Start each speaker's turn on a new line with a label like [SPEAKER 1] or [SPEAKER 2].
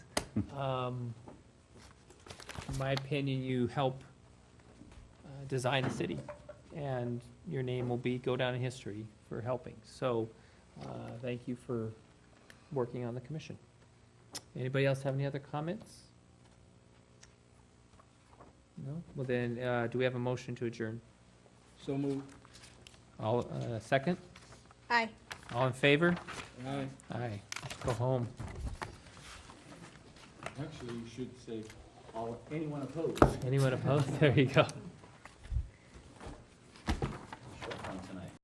[SPEAKER 1] um, in my opinion, you help uh, design a city, and your name will be, go down in history for helping. So, uh, thank you for working on the commission. Anybody else have any other comments? No? Well then, uh, do we have a motion to adjourn?
[SPEAKER 2] So moved.
[SPEAKER 1] All, uh, second?
[SPEAKER 3] Aye.
[SPEAKER 1] All in favor?
[SPEAKER 2] Aye.
[SPEAKER 1] Aye. Let's Go home.
[SPEAKER 2] Actually, you should say, all, anyone opposed?
[SPEAKER 1] Anyone opposed? There you go.